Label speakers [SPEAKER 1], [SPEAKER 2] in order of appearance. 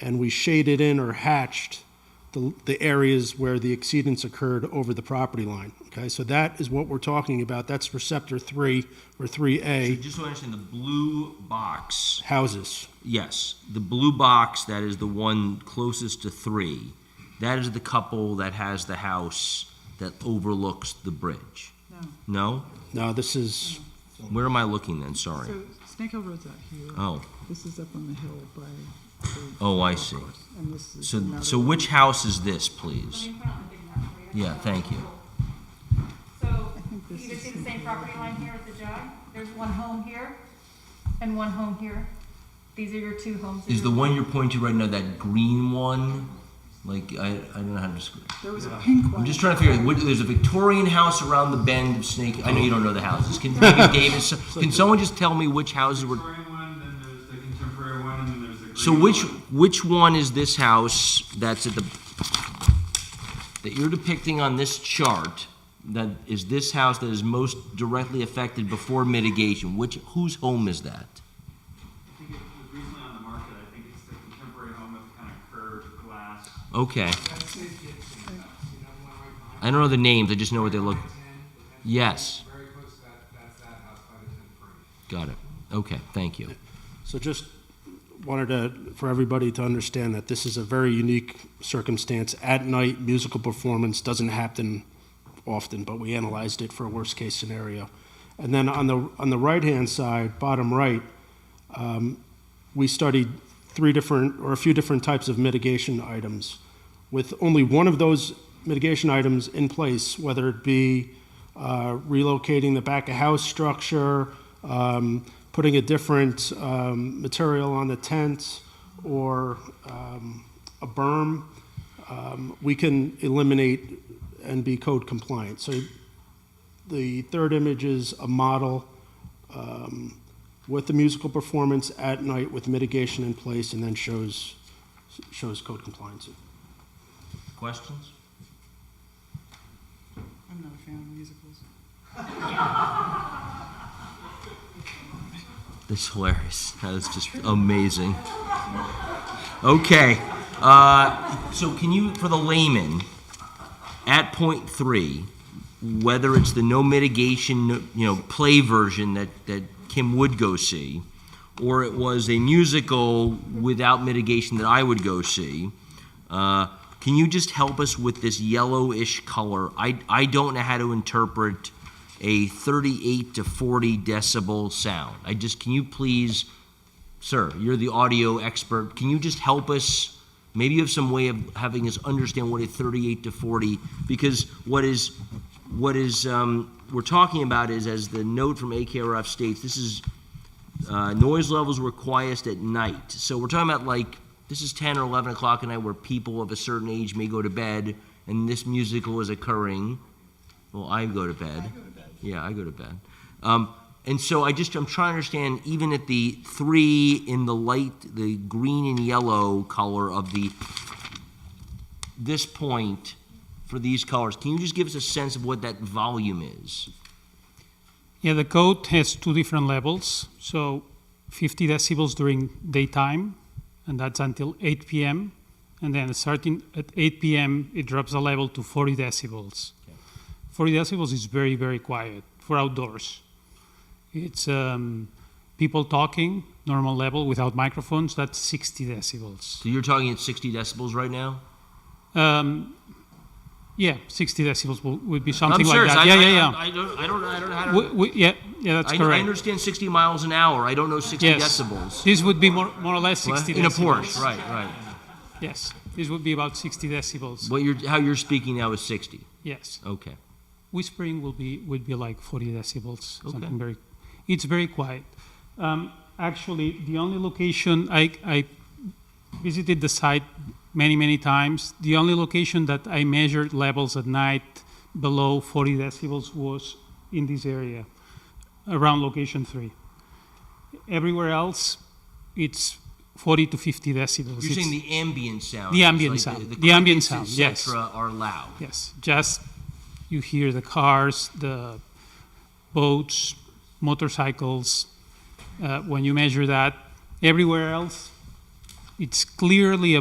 [SPEAKER 1] and we shaded in or hatched the, the areas where the exceedance occurred over the property line. Okay, so that is what we're talking about. That's for Scepter 3 or
[SPEAKER 2] So
[SPEAKER 1] 3A
[SPEAKER 2] just so I understand, the blue box,
[SPEAKER 1] houses.
[SPEAKER 2] yes, the blue box that is the one closest to three, that is the couple that has the house that overlooks the bridge. No.
[SPEAKER 1] Now, this is,
[SPEAKER 2] No? Where am I looking then? Sorry.
[SPEAKER 3] So Snake Hill Road's out here.
[SPEAKER 2] Oh,
[SPEAKER 3] This is up on the hill by. the
[SPEAKER 2] Oh, I
[SPEAKER 3] golf
[SPEAKER 2] see.
[SPEAKER 3] course, And this is.
[SPEAKER 2] so
[SPEAKER 3] another
[SPEAKER 2] so
[SPEAKER 3] one.
[SPEAKER 2] which house is this, please?
[SPEAKER 4] Let me put on the big map for you.
[SPEAKER 2] Yeah, thank you.
[SPEAKER 4] So
[SPEAKER 3] I think
[SPEAKER 4] you
[SPEAKER 3] this
[SPEAKER 4] either
[SPEAKER 3] is
[SPEAKER 4] see the same
[SPEAKER 3] Snake
[SPEAKER 4] property line here at the jog, there's one home here and one home here. These are your two homes. that
[SPEAKER 2] Is the
[SPEAKER 4] you're-
[SPEAKER 2] one you're pointing to right now that green one? Like I, I don't know how to describe.
[SPEAKER 3] There was a pink one.
[SPEAKER 2] I'm just trying to figure out. What, there's a Victorian house around the bend of Snake. I know you don't know the houses. Can David Davis? Can someone just tell me which houses were?
[SPEAKER 5] Victorian one, then there's the contemporary one, and then there's the green
[SPEAKER 2] So which
[SPEAKER 5] one.
[SPEAKER 2] which one is this house that's at the that you're depicting on this chart? That is this house that is most directly affected before mitigation. Which whose home is that?
[SPEAKER 5] I think it was recently on the market. I think it's the contemporary home with kind of curved glass.
[SPEAKER 2] Okay. I don't know the names. I just know what they look. Yes.
[SPEAKER 6] Very close to that, that's that house by the ten free.
[SPEAKER 2] Got it. Okay. Thank you.
[SPEAKER 1] so just wanted to, for everybody to understand that this is a very unique circumstance. At night, musical performance doesn't happen often, but we analyzed it for a worst case scenario. And then on the, on the right hand side, bottom right, we studied three different or a few different types of mitigation items. With only one of those mitigation items in place, whether it be uh, relocating the back of house structure, um, putting a different um, material on the tent, or um, a berm, um, we can eliminate and be code compliant. So the third image is a model um, with the musical performance at night with mitigation in place and then shows, shows code compliance.
[SPEAKER 2] Questions?
[SPEAKER 3] I'm not a fan of musicals.
[SPEAKER 2] That's hilarious. That was just amazing. Okay. Uh, so, can you, for the layman, at point three, whether it's the no mitigation, no- you know, play version that, that Kim would go see, or it was a musical without mitigation that I would go see, uh, can you just help us with this yellowish color? I, I don't know how to interpret a 38 to 40 decibel sound. I just, can you please, sir, you're the audio expert, can you just help us? Maybe you have some way of having us understand what a 38 to 40, because what is, what is, um, we're talking about is, as the note from AKRF states, this is uh, noise levels were quietest at night. So we're talking about like this is 10 or 11 o'clock at night where people of a certain age may go to bed, and this musical is occurring. Well, I go to bed. Yeah, I go to bed. Um, and so I just I'm trying to understand even at the three in the light, the green and yellow color of the this point for these colors. Can you just give us a sense of what that volume is?
[SPEAKER 7] Yeah, the code has two different levels. So 50 decibels during daytime, and that's until 8 p.m. And then starting at 8 p.m., it drops the level to 40 decibels. 40 decibels is very, very quiet for outdoors. It's um, people talking, normal level without microphones, that's 60 decibels.
[SPEAKER 2] So you're talking at 60 decibels right now.
[SPEAKER 7] Um, yeah, 60 decibels would, would be something
[SPEAKER 2] I'm
[SPEAKER 7] like
[SPEAKER 2] serious.
[SPEAKER 7] that.
[SPEAKER 2] I,
[SPEAKER 7] yeah,
[SPEAKER 2] I,
[SPEAKER 7] yeah, yeah.
[SPEAKER 2] I, I don't, I don't, I don't know how to.
[SPEAKER 7] We- we- yeah, yeah, that's
[SPEAKER 2] I, I
[SPEAKER 7] correct.
[SPEAKER 2] understand 60 miles an hour. I don't know 60
[SPEAKER 7] Yes.
[SPEAKER 2] decibels.
[SPEAKER 7] This would be more, more or less 60
[SPEAKER 2] in a
[SPEAKER 7] decibels.
[SPEAKER 2] Porsche, right, right.
[SPEAKER 7] Yes, this would be about 60 decibels.
[SPEAKER 2] What you're, how you're speaking now is 60.
[SPEAKER 7] Yes,
[SPEAKER 2] Okay.
[SPEAKER 7] whispering will be would be like 40 decibels.
[SPEAKER 2] Okay.
[SPEAKER 7] Something very, it's very quiet. Um, actually, the only location I, I visited the site many many times. The only location that I measured levels at night below 40 decibels was in this area, around location three. Everywhere else, it's 40 to 50 decibels.
[SPEAKER 2] You're
[SPEAKER 7] It's-
[SPEAKER 2] saying the ambient sound.
[SPEAKER 7] The
[SPEAKER 2] is
[SPEAKER 7] ambient
[SPEAKER 2] like
[SPEAKER 7] sound.
[SPEAKER 2] The,
[SPEAKER 7] The ambient
[SPEAKER 2] crickets,
[SPEAKER 7] sound,
[SPEAKER 2] et
[SPEAKER 7] yes.
[SPEAKER 2] cetera, Are loud.
[SPEAKER 7] Yes, just you hear the cars, the boats, motorcycles. Uh, when you measure that, everywhere else, It's clearly a